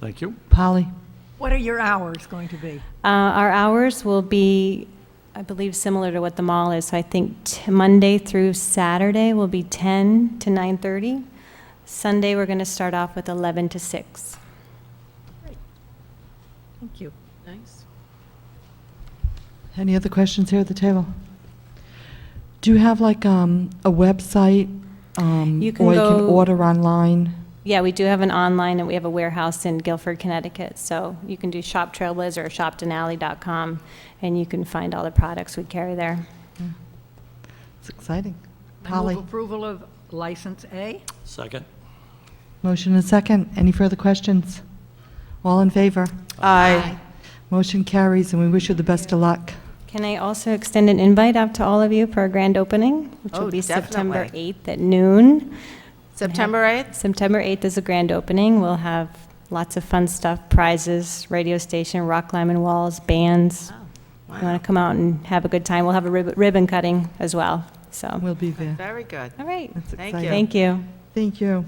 Thank you. Polly? What are your hours going to be? Uh, Our hours will be, I believe, similar to what the mall is, so I think t- Monday through Saturday will be 10 to 9:30. Sunday, we're going to start off with 11 to 6. Thank you. Nice. Any other questions here at the table? Do you have like um, a website? um, You can Or you can go- order online? Yeah, we do have an online, and we have a warehouse in Guilford, Connecticut, so you can do Shop Trailblazer or shopdenali.com, and you can find all the products we carry there. It's exciting. I move Polly, approval of License A. Second. motion and second. Any further questions? All in favor? Aye. Motion carries, and we wish you the best of luck. Can I also extend an invite out to all of you for a grand opening, which Oh, will be September definitely. 8th at noon? September 8th? September 8th is a grand opening. We'll have lots of fun stuff, prizes, radio station, rock climbing walls, bands. Oh, You want to come out and have a good time. We'll have a rib- ribbon cutting as well, so. We'll be there. Very good. All right, It's Thank exciting. you. thank you. Thank you.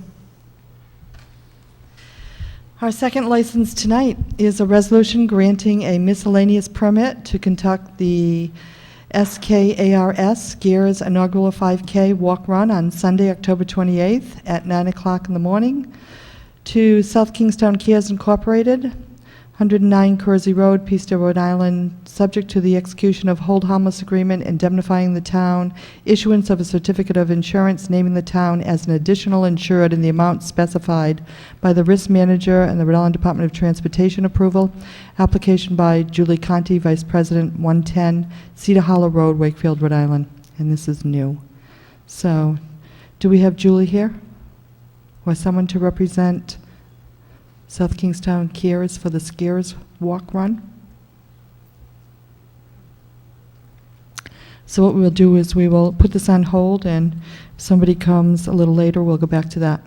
Our second license tonight is a resolution granting a miscellaneous permit to conduct the SKARS Gears inaugural 5K Walk Run on Sunday, October 28th at 9 o'clock in the morning to South Kingstown Cares Incorporated, 109 Cursey Road, Peaceville, Rhode Island, subject to the execution of hold harmless agreement indemnifying the town, issuance of a certificate of insurance naming the town as an additional insured in the amount specified by the risk manager and the Rhode Island Department of Transportation approval, application by Julie Conti, Vice President, 110 Cedar Hollow Road, Wakefield, Rhode Island, and this is new. So, do we have Julie here? Or someone to represent South Kingstown Kiers for the Skiers Walk Run? So what we'll do is we will put this on hold, and if somebody comes a little later, we'll go back to that.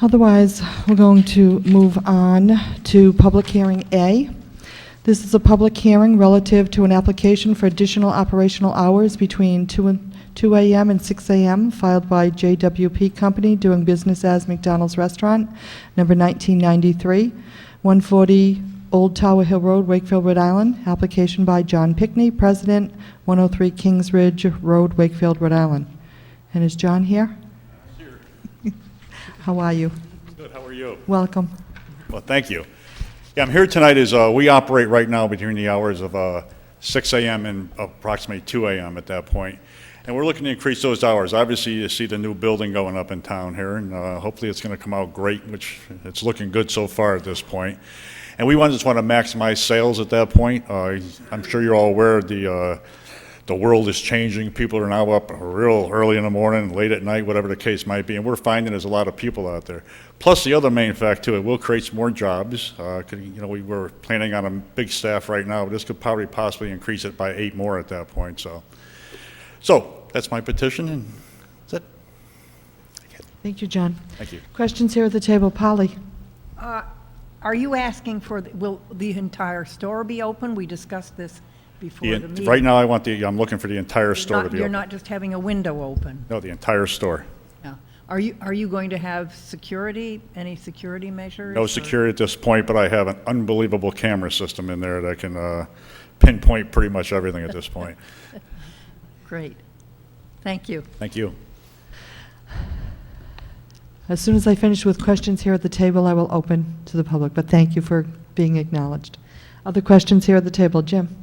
Otherwise, we're going to move on to public hearing A. This is a public hearing relative to an application for additional operational hours between 2 and 2 a.m. and 6 a.m. filed by JWP Company doing business as McDonald's Restaurant, number 1993, 140 Old Tower Hill Road, Wakefield, Rhode Island. Application by John Pickney, President, 103 Kings Ridge Road, Wakefield, Rhode Island. And is John here? How are you? Good, how are you? Welcome. Well, thank you. Yeah, I'm here tonight is, uh, we operate right now between the hours of, uh, six AM and approximately two AM at that point. And we're looking to increase those hours. Obviously, you see the new building going up in town here, and, uh, hopefully it's gonna come out great, which it's looking good so far at this point. And we want- just wanna maximize sales at that point. Uh, I'm sure you're all aware of the, uh, the world is changing. People are now up real early in the morning, late at night, whatever the case might be. And we're finding there's a lot of people out there. Plus, the other main fact too, it will create some more jobs. Uh, could, you know, we were planning on a big staff right now, but this could probably possibly increase it by eight more at that point. So, so that's my petition, and that's it. Thank you, John. Thank you. Questions here at the table? Polly? Are you asking for, the- will the entire store be open? We discussed this before The the en- meeting. right now, I want the. I'm looking for the entire You're store not- to be You're open. not just having a window open. no, the entire store. No. Are you, are you going to have security, any security measures? No or- security at this point, but I have an unbelievable camera system in there that can uh, pinpoint pretty much everything at this point. Great. Thank you. Thank you. As soon as I finish with questions here at the table, I will open to the public, but thank you for being acknowledged. Other questions here at the table? Jim?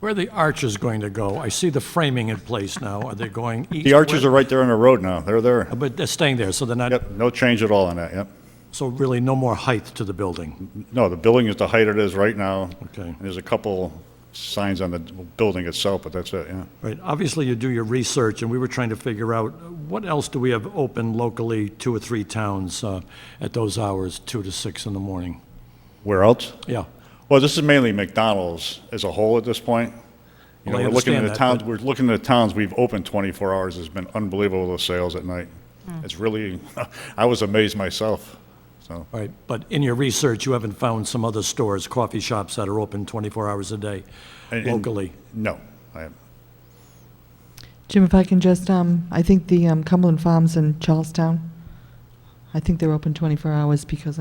Where are the arches going to go? I see the framing in place now. Are they going east? The arches west? are right there on the road now. They're there. But they're staying there, so they're not, Yep, no change at all on that, yep. so really no more height to the building. No, the building is the height it is right now. Okay. And There's a couple signs on the building itself, but that's it, yeah. Right, obviously you do your research, and we were trying to figure out, what else do we have open locally, two or three towns uh, at those hours, two to six in the morning? Where else? Yeah, Well, this is mainly McDonald's as a whole at this point. You know, Well, I we're looking at understand the that, towns, but- we're looking at the towns we've opened 24 hours. It's been unbelievable, the sales at night. Hmm. It's really, I was amazed myself, so. all right, but in your research, you haven't found some other stores, coffee shops that are open 24 hours a day and- and- locally? No, I haven't. Jim, if I can just, um, I think the um, Cumberland Farms in Charlestown, I think they're open 24 hours because I.